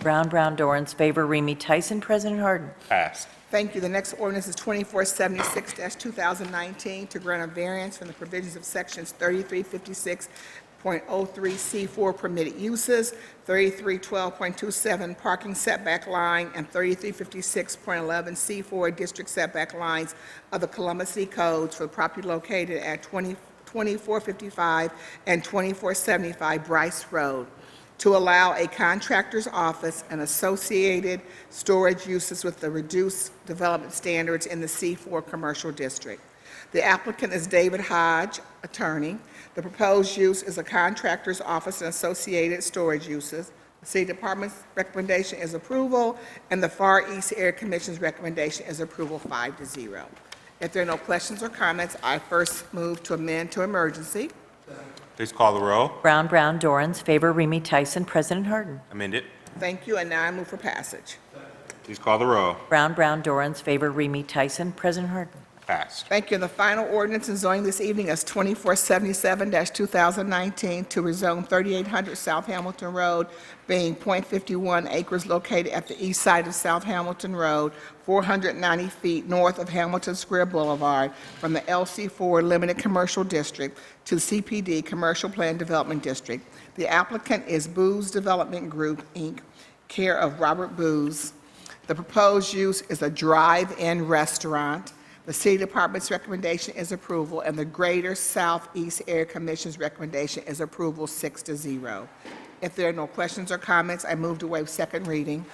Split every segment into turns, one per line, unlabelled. Brown, Brown, Dorans, favor, Remy Tyson, President Harden.
Passed.
Thank you. The next ordinance is 2476-2019 to grant a variance from the provisions of Sections 3356.03C4 permitted uses, 3312.27 parking setback line, and 3356.11C4 district setback lines of the Columbus City Codes for property located at 20 2455 and 2475 Bryce Road to allow a contractor's office and associated storage uses with the reduced development standards in the C4 Commercial District. The applicant is David Hodge, attorney. The proposed use is a contractor's office and associated storage uses. The City Department's recommendation is approval, and the Far East Air Commission's recommendation is approval five to zero. If there are no questions or comments, I first move to amend to emergency.
Please call the roll.
Brown, Brown, Dorans, favor, Remy Tyson, President Harden.
Amend it.
Thank you, and now I move for passage.
Please call the roll.
Brown, Brown, Dorans, favor, Remy Tyson, President Harden.
Passed.
Thank you. And the final ordinance in zoning this evening is 2477-2019 to rezone 3800 South Hamilton Road, being .51 acres located at the east side of South Hamilton Road, 490 feet north of Hamilton Square Boulevard, from the LC4 Limited Commercial District to CPD Commercial Plan Development District. The applicant is Booz Development Group, Inc., care of Robert Booz. The proposed use is a drive-in restaurant. The City Department's recommendation is approval, and the Greater Southeast Air Commission's recommendation is approval, six to zero. If there are no questions or comments, I move to waive second reading.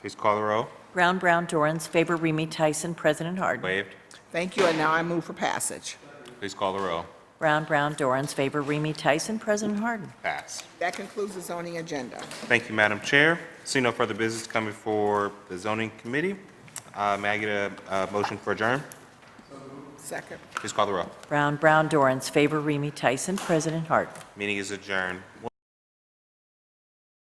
Please call the roll.
Brown, Brown, Dorans, favor, Remy Tyson, President Harden.
Waived.
Thank you, and now I move for passage.
Please call the roll.
Brown, Brown, Dorans, favor, Remy Tyson, President Harden.
Passed.
That concludes the zoning agenda.
Thank you, Madam Chair. See no further business coming for the zoning committee. Uh, May I get a uh, motion for adjourn?
Second.
Please call the roll.
Brown, Brown, Dorans, favor, Remy Tyson, President Harden.
Meeting is adjourned. One